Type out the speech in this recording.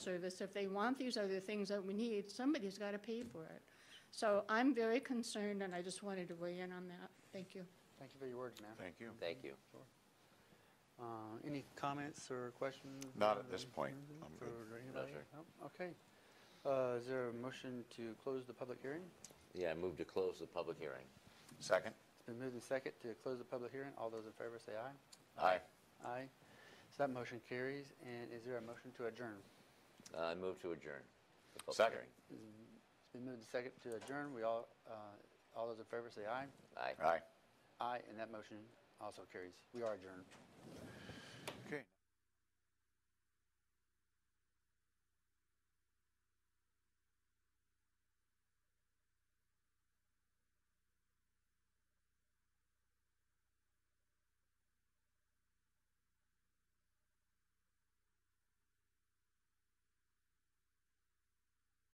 service, if they want these other things that we need, somebody's got to pay for it. So I'm very concerned, and I just wanted to weigh in on that. Thank you. Thank you for your words, ma'am. Thank you. Thank you. Uh, Any comments or questions? Not or at this point. anything I'm for good. anybody? sir. No? Okay. Uh, Is there a motion to close the public hearing? Yeah, I move to close the public hearing. Second? It's been moved and second to close the public hearing. All those in favor say aye. Aye. Aye. So that motion carries. And is there a motion to adjourn? Uh, I move to adjourn. the public Second. hearing. It's been moved and second to adjourn. We all, uh, all those in favor say aye. Aye. Aye. Aye, and that motion also carries. We are adjourned.